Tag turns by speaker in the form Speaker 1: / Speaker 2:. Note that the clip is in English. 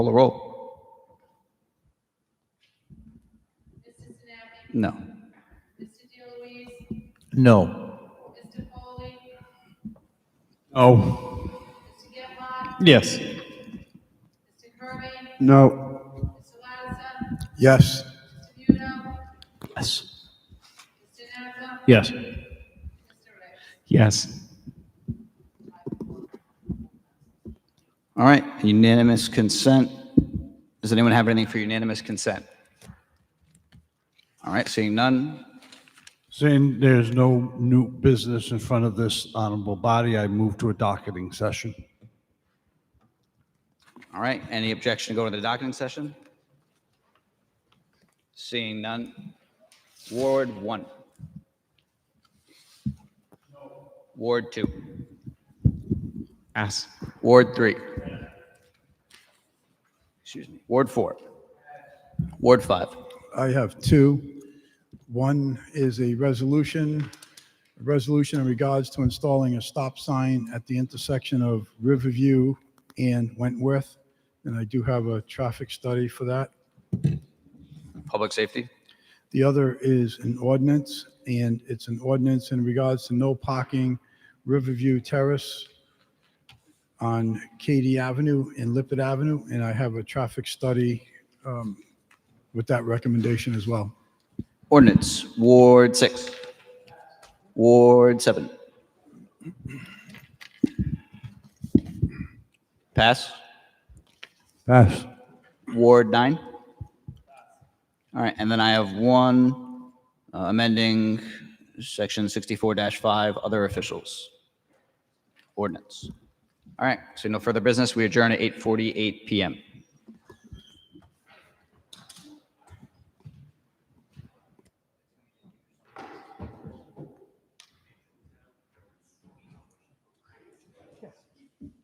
Speaker 1: Call the roll.
Speaker 2: Mrs. Sinati,
Speaker 1: No.
Speaker 2: Mr. DeLuise,
Speaker 3: No.
Speaker 2: Mr. Foley,
Speaker 3: Oh.
Speaker 2: Mr. Getlaw,
Speaker 3: Yes.
Speaker 2: Mr. Kirby,
Speaker 3: No.
Speaker 2: Mr. Lattiser,
Speaker 3: Yes.
Speaker 2: Mr. Muno,
Speaker 3: Yes.
Speaker 2: Mr. Nazza,
Speaker 3: Yes.
Speaker 2: Mr. Ricks.
Speaker 3: Yes.
Speaker 1: All right, unanimous consent. Does anyone have anything for unanimous consent? All right, seeing none.
Speaker 4: Seeing there's no new business in front of this honorable body, I move to a docketing session.
Speaker 1: All right, any objection to go to the docketing session? Seeing none. Ward one. Ward two.
Speaker 3: Yes.
Speaker 1: Ward three. Excuse me. Ward four. Ward five.
Speaker 5: I have two. One is a resolution, a resolution in regards to installing a stop sign at the intersection of Riverview and Wentworth. And I do have a traffic study for that.
Speaker 1: Public safety.
Speaker 5: The other is an ordinance, and it's an ordinance in regards to no parking Riverview Terrace on Katy Avenue and Lippert Avenue, and I have a traffic study um, with that recommendation as well.
Speaker 1: Ordinance, Ward 6. Ward 7. Pass.
Speaker 4: Pass.
Speaker 1: Ward 9. All right, and then I have one uh, amending Section 64-5, other officials. Ordinance. All right, so no further business. We adjourn at 8:48 PM.